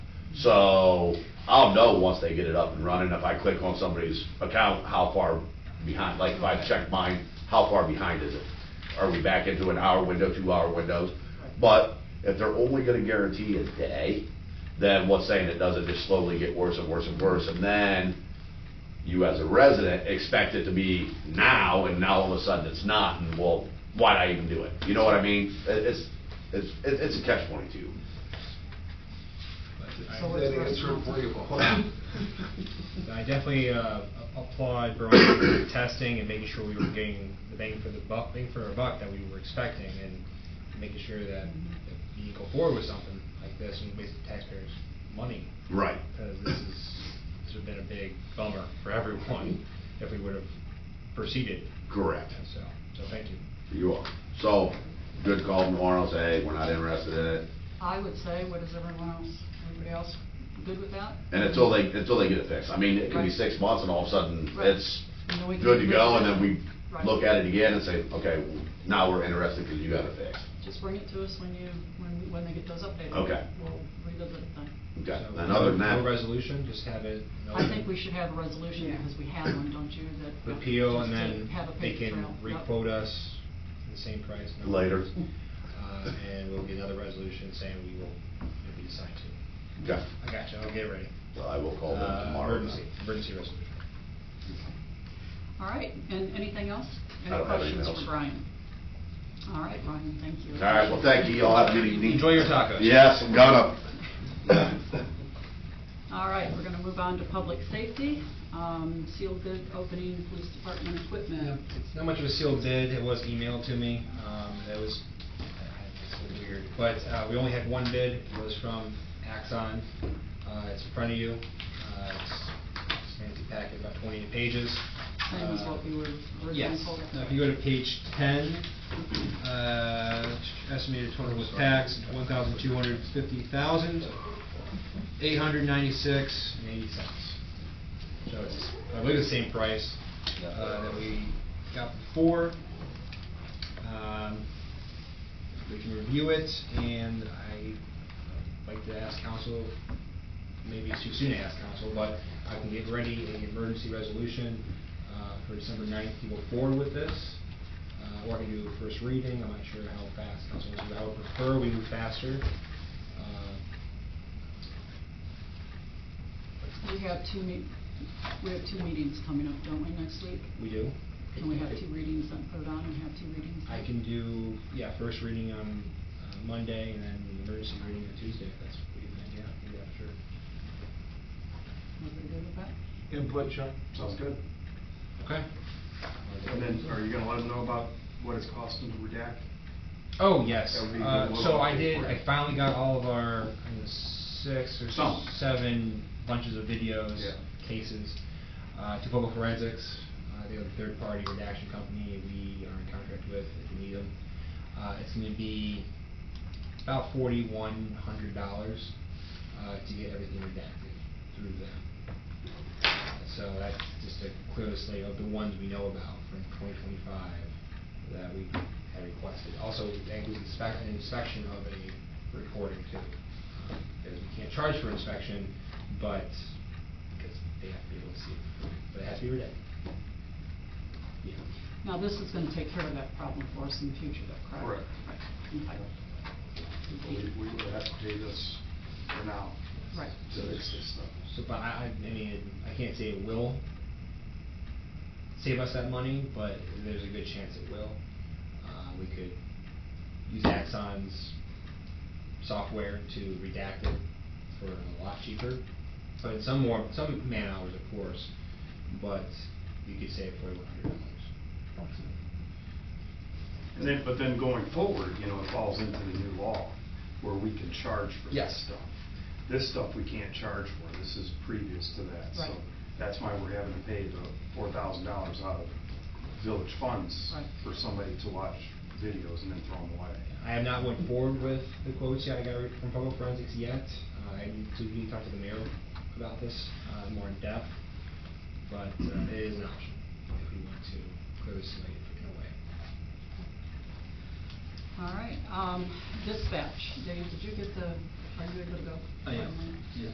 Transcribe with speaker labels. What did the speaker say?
Speaker 1: So I'll know once they get it up and running, if I click on somebody's account, how far behind, like if I check mine, how far behind is it? Are we back into an hour window, two hour windows? But if they're only gonna guarantee a day, then what's saying it doesn't just slowly get worse and worse and worse? And then you as a resident expect it to be now and now all of a sudden it's not and well, why'd I even do it? You know what I mean? It- It's, it's, it- it's a catch twenty-two.
Speaker 2: So it's
Speaker 3: That
Speaker 2: not
Speaker 3: answer
Speaker 2: true.
Speaker 3: agreeable.
Speaker 4: I definitely uh, applaud Brian for testing and making sure we were getting the bang for the buck, bang for our buck that we were expecting, and making sure that if we go forward with something like this and waste taxpayers' money,
Speaker 1: Right.
Speaker 4: because this is, this would have been a big bummer for everyone if we would have proceeded,
Speaker 1: Correct.
Speaker 4: and so, so thank you.
Speaker 1: You are. So, good call tomorrow, say, hey, we're not interested in it.
Speaker 2: I would say, what is everyone else, everybody else good with that?
Speaker 1: And until they, until they get it fixed. I mean, it could be six months and all of a sudden,
Speaker 2: Right.
Speaker 1: it's
Speaker 2: And then we can
Speaker 1: good to go, and then
Speaker 2: revisit it.
Speaker 1: we
Speaker 2: Right.
Speaker 1: look at it again and say, okay, now we're interested because you got it fixed.
Speaker 2: Just bring it to us when you, when, when they get those updated.
Speaker 1: Okay.
Speaker 2: We'll revisit it then.
Speaker 1: Okay,
Speaker 4: So,
Speaker 1: and other than
Speaker 4: No
Speaker 1: that,
Speaker 4: resolution, just have it. no-
Speaker 2: I think we should have a resolution, because we have one, don't you, that.
Speaker 4: Repeal and
Speaker 2: just to
Speaker 4: then
Speaker 2: have a
Speaker 4: they can
Speaker 2: paper trail. Yep.
Speaker 4: requote us the same price. no?
Speaker 1: later.
Speaker 4: Uh, and we'll get another resolution saying we will, if we decide to.
Speaker 1: Okay,
Speaker 4: I got you, I'll get it ready.
Speaker 1: so I will call them
Speaker 4: Uh,
Speaker 1: tomorrow.
Speaker 4: Emergency, emergency resolution.
Speaker 2: All right, and anything else?
Speaker 1: I
Speaker 2: Any
Speaker 1: don't have anything
Speaker 2: questions
Speaker 1: else.
Speaker 2: for Brian? All right, Brian, thank you.
Speaker 1: All right, well, thank you, y'all have a good evening.
Speaker 4: Enjoy your tacos.
Speaker 1: Yes, I'm gonna.
Speaker 2: All right, we're going to move on to public safety, um, sealed bid opening, police department
Speaker 4: Yeah,
Speaker 2: equipment.
Speaker 4: Uh, It's not much of a sealed bid, it was emailed to me, um, that was, it's a little weird, but, uh, we only had one bid, it was from Axon, uh, it's in front of you, uh, it's, it's a fancy packet, about twenty pages. Uh,
Speaker 2: Same as what we were originally
Speaker 4: Yes,
Speaker 2: told.
Speaker 4: now if you go to page ten, uh, estimated total was tax, one thousand two hundred fifty thousand, eight hundred ninety-six and eighty cents. So it's, I believe the same price, uh, that we got before. Um, we can review it, and I'd like to ask council, maybe it's too soon to ask council, but I can get ready an emergency resolution uh, for December 9th to go forward with this, Uh, or I can do a first reading, I'm not sure how fast council wants to, do. I would prefer we move faster. Uh,
Speaker 2: We have two meet, we have two meetings coming up, don't we, next week?
Speaker 4: We do.
Speaker 2: Can we have two readings then put it on and have two readings?
Speaker 4: I can do, yeah, first reading on uh, Monday, and then the emergency reading on Tuesday, if that's what you think, yeah, I think that's sure.
Speaker 2: Everybody good with that?
Speaker 3: Input, Chuck? Sounds good.
Speaker 4: Okay.
Speaker 3: And then, are you gonna let them know about what it's costing to redact?
Speaker 4: Oh, yes.
Speaker 3: That would be
Speaker 4: Uh,
Speaker 3: good.
Speaker 4: So I
Speaker 3: We'll-
Speaker 4: did, I finally got all of our I think, six or
Speaker 3: Some.
Speaker 4: seven bunches of videos,
Speaker 3: Yeah.
Speaker 4: cases, uh, to Public Forensics. uh, They're a third-party redaction company we are in contract with if you need them. Uh, It's going to be about forty-one hundred dollars uh, to get everything redacted through them. So that's just to clear the slate of the ones we know about from twenty twenty-five that we had requested. Also, that includes inspec- an inspection of a recording too. um, Because we can't charge for inspection, but, because they have to be able to see it, but it has to be redacted. Yeah.
Speaker 2: Now, this is gonna take care of that problem for us in the future, though, correct?
Speaker 3: Correct.
Speaker 2: Right.
Speaker 3: We, we would have to pay this for now
Speaker 2: Okay. Right.
Speaker 3: to fix this stuff.
Speaker 4: So, but I, I, I mean, I can't say it will save us that money, but there's a good chance it will. Uh, we could use Axon's software to redact it for a lot cheaper, but in some more, some man hours, of course, but you could save forty-one hundred dollars.
Speaker 3: And then, but then going forward, you know, it falls into the new law where we can charge for this
Speaker 4: Yes.
Speaker 3: stuff. This stuff we can't charge for, this is previous to that, so
Speaker 2: Right.
Speaker 3: that's why we're having to pay the four thousand dollars out of village funds
Speaker 2: Right.
Speaker 3: for somebody to watch videos and then throw them away.
Speaker 4: I have not went forward with the quotes yet I got re- from Public Forensics yet. Uh, I need to really talk to the mayor about this uh, more in depth, but uh, it is an option if we want to clear this slate in a way.
Speaker 2: All right, um, dispatch, Dave, did you get the, are you able to go?
Speaker 5: I am, yes.